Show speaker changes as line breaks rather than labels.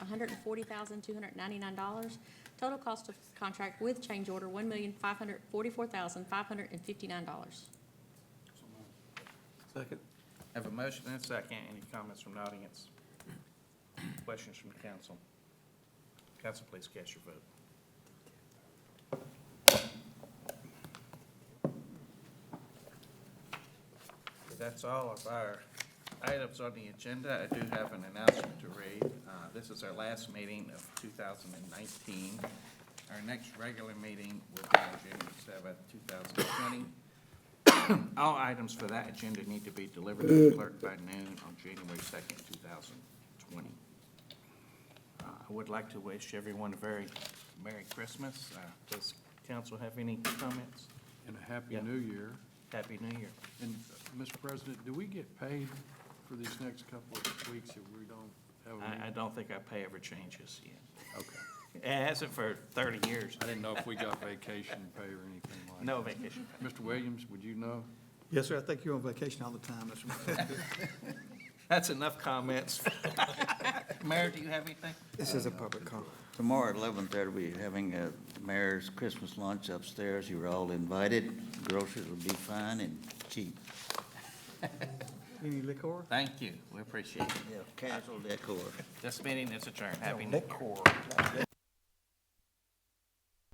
hundred and forty thousand, two hundred and ninety-nine dollars. Total cost of contract with change order, one million, five hundred and forty-four thousand, five hundred and fifty-nine dollars.
Second.
Have a motion and a second. Any comments from the audience? Questions from the council? Council, please cast your vote. That's all of our items on the agenda. I do have an announcement to read. Uh, This is our last meeting of 2019. Our next regular meeting will be on January seventh, 2020. All items for that agenda need to be delivered to the clerk by noon on January second, two thousand twenty. Uh, I would like to wish everyone a very Merry Christmas. Uh, Does council have any comments?
And a Happy
Yeah.
New Year.
Happy New Year.
And, uh, Mr. President, do we get paid for these next couple of weeks if we don't have a
I, I
meeting?
don't think our pay ever changes yet.
Okay.
It hasn't for thirty years.
I didn't know if we got vacation pay or anything like that.
No vacation.
Mr. Williams, would you know?
Yes, sir, I think you're on vacation all the time, Mr. Mayor.
That's enough comments. Mayor, do you have anything?
This is a public call. Tomorrow at eleven thirty, we're having a mayor's Christmas lunch upstairs. You're all invited. Groceries will be fine and cheap.
Any liquor?
Thank you. We appreciate it.
Yeah, casual decor.
This meeting is adjourned. Happy New Year.